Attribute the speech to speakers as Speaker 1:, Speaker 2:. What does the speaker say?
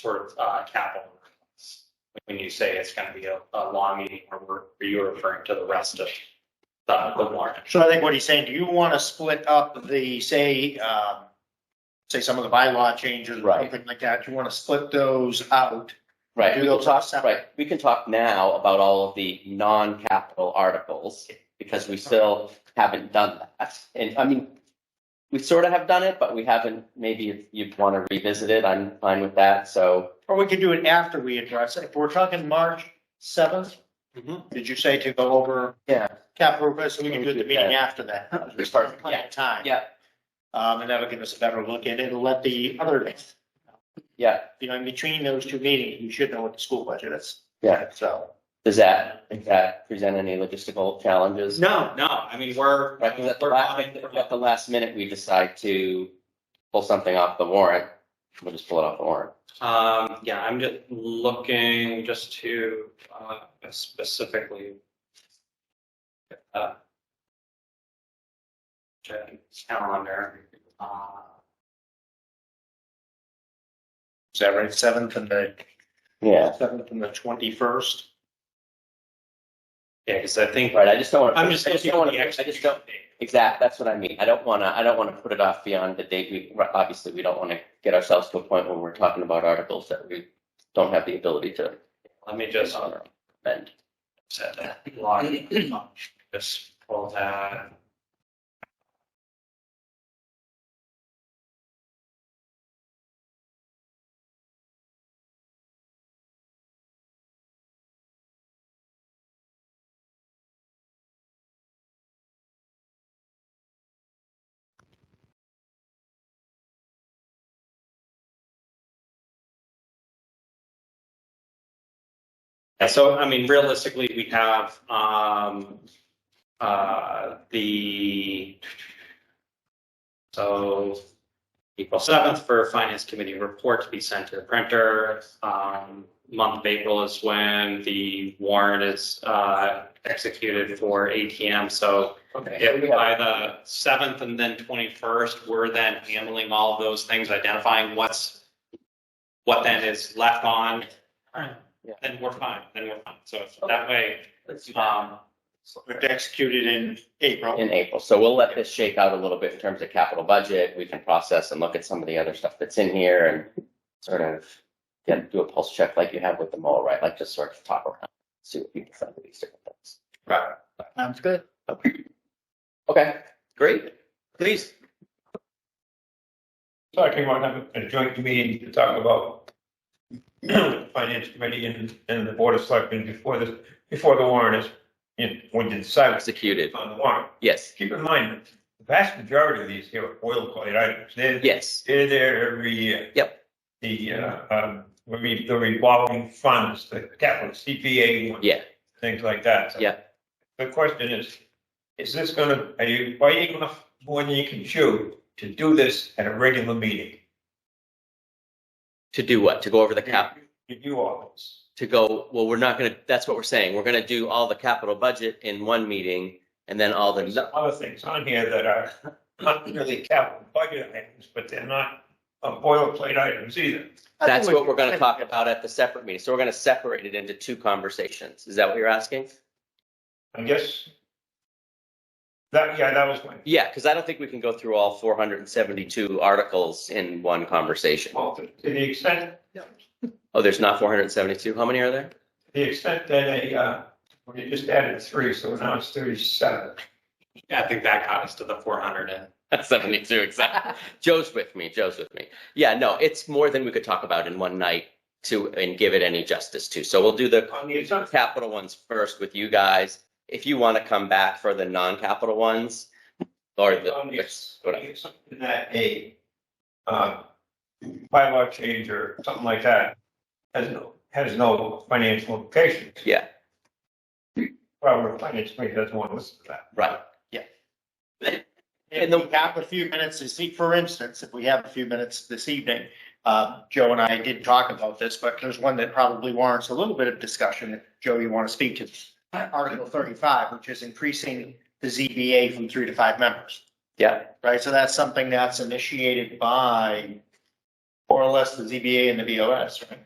Speaker 1: for uh, capital. When you say it's going to be a, a long meeting, or were are you referring to the rest of the, the warrant?
Speaker 2: So I think what he's saying, do you want to split up the, say, um, say some of the bylaw changes or
Speaker 3: Right.
Speaker 2: something like that? Do you want to split those out?
Speaker 3: Right,
Speaker 2: Do
Speaker 3: we will
Speaker 2: those
Speaker 3: talk,
Speaker 2: separate.
Speaker 3: right, we can talk now about all of the non-capital articles, because we still haven't done that. And, I mean, we sort of have done it, but we haven't, maybe if you'd want to revisit it, I'm fine with that, so,
Speaker 2: Or we could do it after we address it. If we're talking March seventh,
Speaker 1: Mhm.
Speaker 2: did you say to go over
Speaker 3: yeah,
Speaker 2: capital request? So we can do it the meeting after that.
Speaker 3: Perfect.
Speaker 2: Plenty of time.
Speaker 3: yeah,
Speaker 2: Um, and that'll give us a better look at it. It'll let the other,
Speaker 3: yeah,
Speaker 2: you know, in between those two meetings, you should know what the school budget is.
Speaker 3: Yeah.
Speaker 2: So.
Speaker 3: does that, does that present any logistical challenges?
Speaker 1: No, no, I mean, we're.
Speaker 3: Right, 'cause at the
Speaker 1: we're
Speaker 3: last,
Speaker 1: coming
Speaker 3: if
Speaker 1: from-
Speaker 3: at the last minute, we decide to pull something off the warrant, we'll just pull it off the warrant.
Speaker 1: Um, yeah, I'm just looking just to, uh, specifically. uh, Check calendar, uh,
Speaker 2: Is that right? Seventh and the,
Speaker 3: Yeah,
Speaker 2: seventh and the twenty-first?
Speaker 1: yeah, cause I think.
Speaker 3: right, I just don't want to.
Speaker 1: I'm just
Speaker 3: I just
Speaker 1: looking
Speaker 3: don't
Speaker 1: at
Speaker 3: want
Speaker 1: the
Speaker 3: to, I just don't,
Speaker 1: execution date.
Speaker 3: Exactly. That's what I mean. I don't want to. I don't want to put it off beyond the date. We obviously we don't want to get ourselves to a point where we're talking about articles that we don't have the ability to
Speaker 1: Let me just uh,
Speaker 3: amend.
Speaker 1: set that log, just pull that. Yeah, so I mean, realistically, we have, um, uh, the. So April seventh for finance committee report to be sent to the printer. Um, month of April is when the warrant is, uh, executed for ATM. So
Speaker 3: Okay.
Speaker 1: if by the seventh and then twenty-first, we're then handling all of those things, identifying what's, what then is left on.
Speaker 3: Yeah.
Speaker 1: Then we're fine, then we're fine. So it's that way, um,
Speaker 2: We've executed in April.
Speaker 3: in April. So we'll let this shake out a little bit in terms of capital budget. We can process and look at some of the other stuff that's in here and sort of get do a pulse check like you have with the mole, right? Like just sort of talk around, see what people think of these different things.
Speaker 2: Right. Sounds good.
Speaker 3: Okay, great. Please.
Speaker 4: So I think we'll have a joint meeting to talk about the finance committee and, and the board of selectmen before this, before the warrant is, in- when you decide
Speaker 3: Executed.
Speaker 4: on the warrant.
Speaker 3: Yes.
Speaker 4: Keep in mind, the vast majority of these here are oil-related items. They're,
Speaker 3: Yes.
Speaker 4: they're there every year.
Speaker 3: Yep.
Speaker 4: The, uh, um, re- the revolving funds, the capital CPA one.
Speaker 3: Yeah.
Speaker 4: Things like that. So
Speaker 3: Yeah.
Speaker 4: The question is, is this gonna, are you biting off more than you can chew to do this at a regular meeting?
Speaker 3: To do what? To go over the cap,
Speaker 4: Review all this.
Speaker 3: to go, well, we're not gonna, that's what we're saying. We're gonna do all the capital budget in one meeting and then all
Speaker 4: There's
Speaker 3: the,
Speaker 4: other things on here that are not really capital budget items, but they're not uh, boilerplate items either.
Speaker 3: that's what we're gonna talk about at the separate meeting. So we're gonna separate it into two conversations. Is that what you're asking?
Speaker 4: I guess. That, yeah, that was my,
Speaker 3: Yeah, because I don't think we can go through all four hundred and seventy-two articles in one conversation.
Speaker 4: well, to to the extent,
Speaker 3: Oh, there's not four hundred and seventy-two. How many are there?
Speaker 4: to the extent that a, uh, well, you just added three, so now it's thirty-seven.
Speaker 1: I think that got us to the four hundred and.
Speaker 3: Seventy-two, exactly. Joe's with me. Joe's with me. Yeah, no, it's more than we could talk about in one night to, and give it any justice to. So we'll do the
Speaker 4: On the assumption,
Speaker 3: capital ones first with you guys. If you want to come back for the non-capital ones or the,
Speaker 4: on the ass- on
Speaker 3: whatever.
Speaker 4: the assumption that a, uh, bylaw change or something like that has no, has no financial implications.
Speaker 3: Yeah.
Speaker 4: Well, the finance committee doesn't want to listen to that.
Speaker 3: right.
Speaker 2: And we have a few minutes to see, for instance, if we have a few minutes this evening, uh, Joe and I did talk about this, but there's one that probably warrants a little bit of discussion. If Joe, you want to speak to Article thirty-five, which is increasing the ZBA from three to five members.
Speaker 3: Yeah.
Speaker 2: Right, so that's something that's initiated by Or less the ZBA and the BOS, right?